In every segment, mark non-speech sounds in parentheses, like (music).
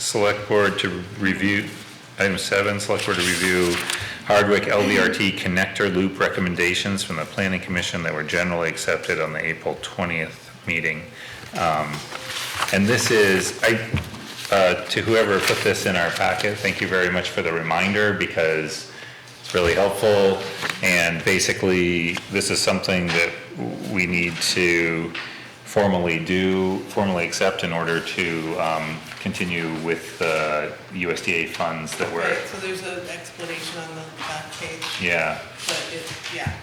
select board to review, item seven, select board to review Hardwick LVRT connector loop recommendations from the planning commission that were generally accepted on the April twentieth meeting. Um, And this is, I, uh, to whoever put this in our packet, thank you very much for the reminder because it's really helpful. And basically, this is something that we need to formally do, formally accept in order to um, continue with the USDA funds that were, Right, so there's an explanation on the back page, yeah, but it, yeah,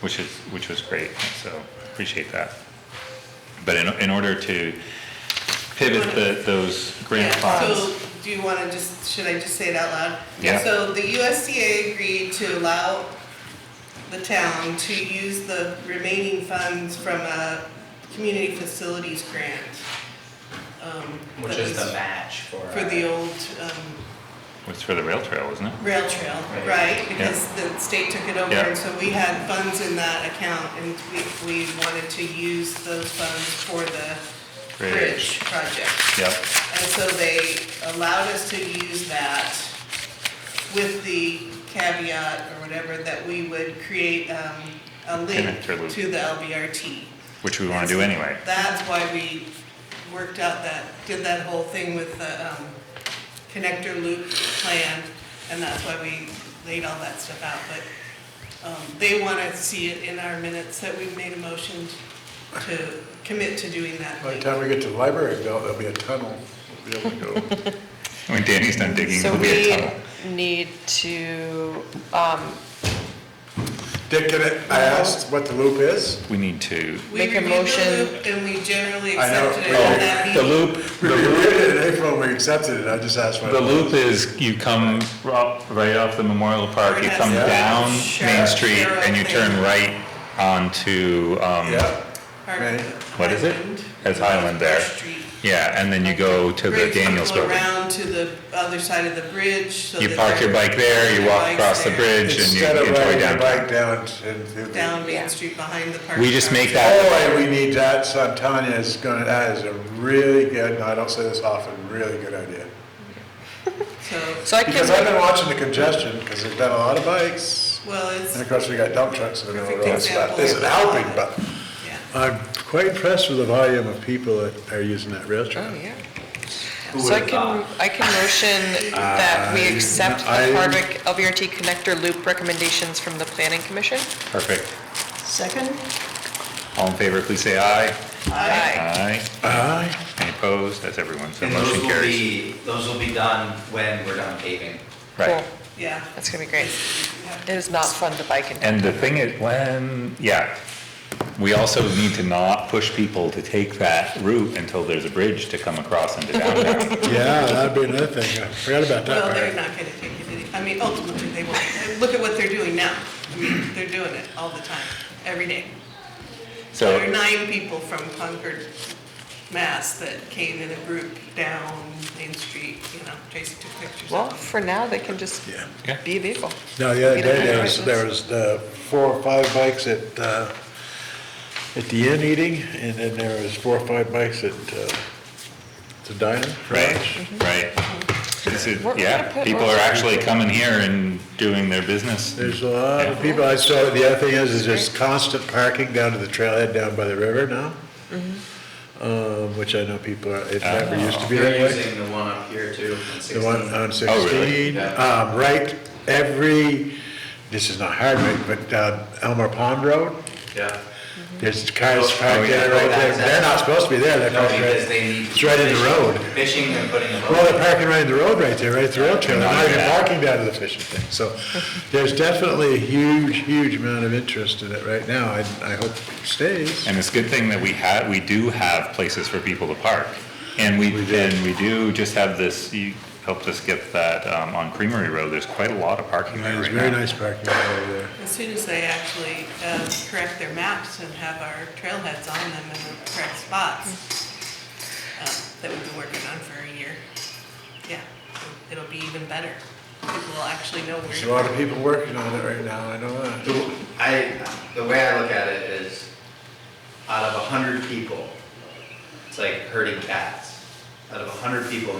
which is, which was great, so appreciate that. But in, in order to pivot the, those grant Yeah, so funds, do you wanna just, should I just say it out loud? Yeah. So the USDA agreed to allow the town to use the remaining funds from a community facilities grant. um, Which that is was the match for. uh, For the old, um, was for the rail trail, wasn't it? rail trail, Right. right? Because the state took it over, Yeah. and so we had funds in that account, and we, we wanted to use those funds for the bridge Bridge. project. Yep, And so they allowed us to use that with the caveat or whatever that we would create, um, a link Connector loop. to the LBRT. which we want to do anyway. That's why we worked out that, did that whole thing with the um, connector loop plan, and that's why we laid all that stuff out, but um, they want to see it in our minutes that we've made a motion to commit to doing that. By the thing. time we get to the library, Bill, there'll be a tunnel. We'll be able to (laughs) go. I mean, Danny's done digging, So there'll be a we tunnel. need to, um, Dick, can I, I asked what the loop is? We need to, We Make a reviewed the motion. loop, And we generally I know. accepted it at that Oh, the meeting. loop, We the loop- reviewed it in April, we accepted it, I just asked what. the loop is, you come up right off the Memorial Park, you come Yeah. down Sure. Main Street, and you turn right onto, um, Yeah, Hardwick what is it? Island, It's Highland there. First Street. Yeah, and then you go to the Bridge, you Daniels go Building. Around to the other side of the bridge. so You that park your they're- bike there, you walk Bikes across the there. bridge, and you instead of enjoy riding your downtown. bike down and through the. down Yeah. Main Street behind the park. We just make that- Oh, and we need that, so I'm telling you, it's gonna, that is a really good, no, I don't say this often, really good idea. So, so I Because I've can, been watching the congestion, because there's been a lot of bikes, well, it's, and of course, we got dump trucks in the middle of the road, so that Perfect isn't example. helping, but. yeah. I'm quite impressed with the volume of people that are using that rail oh, trail. yeah. Who So I would've can, I can motion that we accept I- the Hardwick LVRT connector loop recommendations from the planning commission. Perfect. Second? All in favor, please say aye. Aye. Aye. Aye. Any opposed? That's everyone, so And those motion will carries. be, those will be done when we're done paving. Right. Cool. Yeah. That's gonna be great. It is not fun to bike in. And the thing is, when, yeah, we also need to not push people to take that route until there's a bridge to come across into (laughs) downtown. Yeah, that'd be another thing. I forgot about Well, that they're part. not gonna take it, any- I mean, ultimately, they won't. Look at what they're doing now. I mean, they're doing it all the time, every day. There are So, nine people from Concord, Mass. that came in a group down Main Street, you know, Tracy took pictures Well, of them. for now, they can just Yeah. Yeah. be a vehicle. No, the other You don't day, have there was, questions? there was uh, four or five bikes at, uh, at the inn eating, and then there was four or five bikes at uh, the diner. right, right. This is, We're- we're gonna yeah, put people lots are of actually coming here and doing their business. There's a lot of people. I saw, the other thing is, is there's constant parking down to the trailhead down by the river now. Um, Which I know people are, it never used to be that They're way. using the one up here too, on The one uh, sixteen. on Oh, really? 16, Yeah. um, right, every, this is not Hardwick, but uh, Elmer Pond Road, Yeah. there's cars Oh, parked yeah. there, right there. They're not supposed to be there, they're No, parked because right, they need. it's right in the road. Fishing and putting a Well, boat. they're parking right in the road right there, right at the rail trail, they're not even Yeah. parking down to the fishing thing. So there's definitely a huge, huge amount of interest in it right now, and I hope it stays. And it's a good thing that we had, we do have places for people to park. And we, We do. and we do just have this, you helped us get that, um, on Creamery Road, there's quite a lot of parking there There's right very now. nice parking over there. As soon as they actually um, correct their maps and have our trailheads on them in the correct spots um, that we've been working on for a year, yeah, it'll be even better. People will actually know There's a lot where. of people working on it right now, I know that. The- I, the way I look at it is, out of a hundred people, it's like herding cats. out of a hundred people